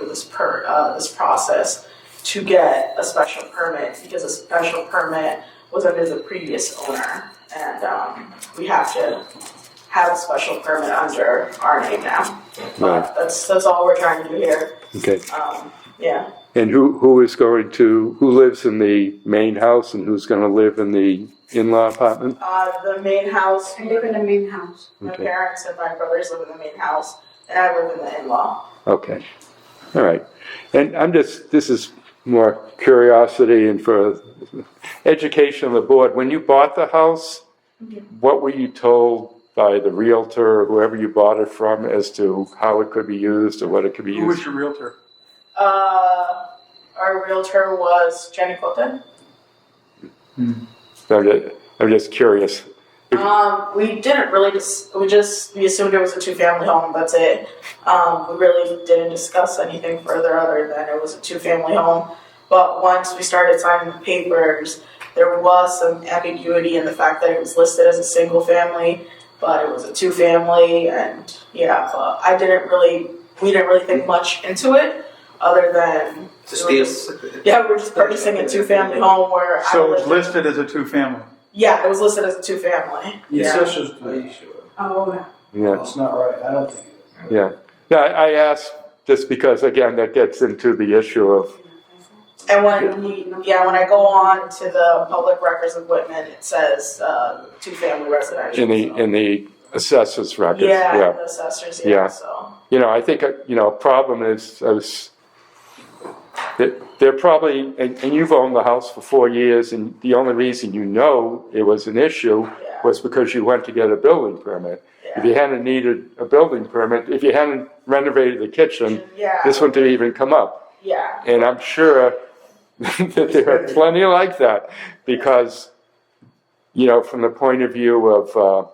this per, uh, this process to get a special permit, because a special permit was under the previous owner. And, um, we have to have a special permit under our name now. Right. That's, that's all we're trying to do here, Okay. um, yeah. And who, who is going to, who lives in the main house and who's gonna live in the in-law apartment? Uh, the main house, I live in the main house. my Okay. parents and my brothers live in the main house, and I live in the in-law. Okay, all right. And I'm just, this is more curiosity and for education of the board. When you bought the house, what were you told by the realtor or whoever you bought it from as to how it could be used or what it could be Who was used? your realtor? Uh, our realtor was Jenny Fulton. I'm ju- I'm just curious. Um, we didn't really dis- we just we assumed it was a two family home. That's it. Um, we really didn't discuss anything further other than it was a two family home. But once we started signing the papers, there was some ambiguity in the fact that it was listed as a single family, but it was a two family, and yeah, so I didn't really we didn't really think much into it other than To steal. yeah, we're just purchasing a two family home where I So lived it's in- listed as a two-family. Yeah, it was listed as a two family. It's Yeah. just as Are you sure? Oh, Yeah, It's not right, I don't think. yeah. No, I I asked just because, again, that gets into the issue of, And when we, yeah, when I go on to the public records of Whitman, it says uh, two family residential. in the, so. in the assessors records. yeah, yeah, the assessors. Yeah. Yeah. So you know, I think, uh, you know, problem is, is that they're probably, and, and you've owned the house for four years, and the only reason you know it was an issue yeah, was because you went to get a building permit. If yeah. you hadn't needed a building permit, if you hadn't renovated the kitchen, yeah, this wouldn't have even come up. yeah, And I'm sure that there are plenty like that, because, you know, from the point of view of, uh,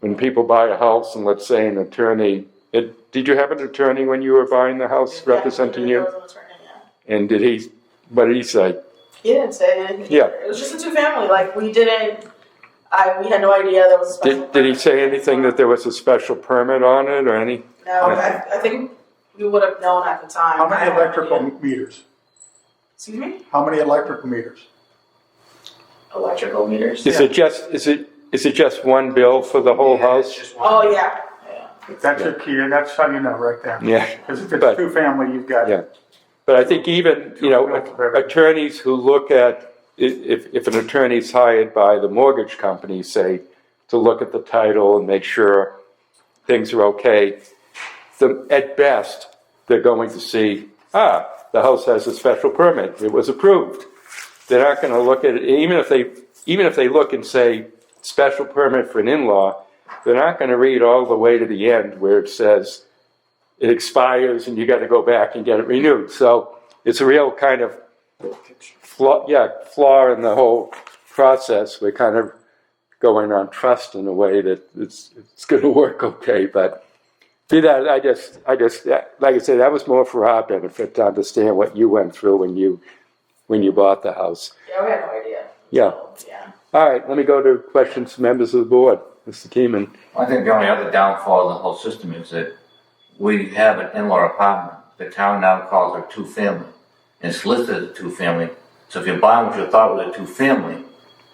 when people buy a house and let's say an attorney, it, did you have an attorney when you were buying the house representing yeah, you? it was an attorney, yeah. And did he, what did he say? He didn't say anything. Yeah. It was just a two family. Like we didn't. I we had no idea there was. A special Did, did he permit. say anything that there was a special permit on it or any? No, I, I think we would have known at the time. How I many had no electrical idea. meters? Excuse me. How many electrical meters? Electrical meters. Is it just, is it, is it just one bill for the whole Yeah, it's house? just one. Oh yeah. yeah. That's your key, and that's how you know right there. Yeah. Because if But- it's two-family, you've got Yeah. But I think even, you know, attorneys who look at, i- if, if an attorney is hired by the mortgage company, say, to look at the title and make sure things are okay, the, at best, they're going to see, ah, the house has a special permit, it was approved. They're not gonna look at it, even if they, even if they look and say, special permit for an in-law, they're not gonna read all the way to the end where it says, it expires and you got to go back and get it renewed. So it's a real kind of flaw, yeah, flaw in the whole process. We're kind of going on trust in a way that it's it's going to work okay. But be that, I just, I just, like I said, that was more for our benefit to understand what you went through when you when you bought the house. Yeah, we had no idea. Yeah. Yeah. All right, let me go to questions from members of the board. Mr. Keeman. I think the only other downfall of the whole system is that we have an in-law apartment. The town now calls it two-family. It's listed as a two-family. So if you're buying what you thought was a two-family,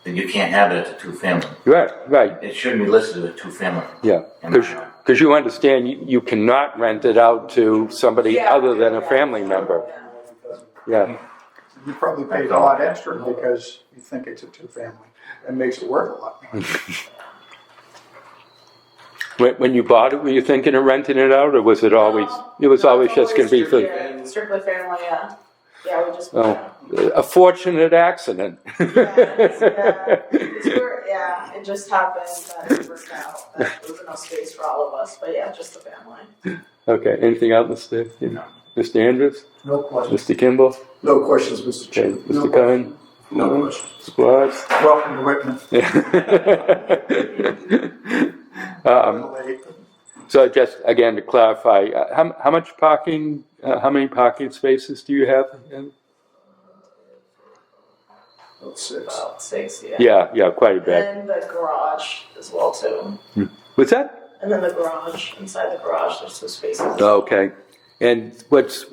then you can't have it as a two-family. Right, right. It shouldn't be listed as a two-family. Yeah, And um, I- because you understand, you you cannot rent it out to somebody Yeah. other than a family member. Yeah, You probably paid a lot extra because you think it's a two-family. It makes it worth a lot more. when when you bought it, were you thinking of renting it out, or was it always, it was No, always it's just gonna be for yeah, strictly family. Yeah. Yeah, we just. Oh. a fortunate accident? it's- yeah. It's where- yeah, it just happened that it worked out. That there was enough space for all of us, but yeah, just the family. Okay, anything else, Mr. No. Mr. Andrews, No questions. Mr. Kimball, No questions, Mr. Okay, Chairman. No questions. Mr. Cohen, No question. Squads? Welcome to Whitman. Um, So just, again, to clarify, uh, how, how much parking, uh, how many parking spaces do you have? That's six. About six. Yeah. Yeah, yeah, quite a bit. And the garage as well too. What's that? And then the garage inside the garage, there's two spaces. Okay. And what's,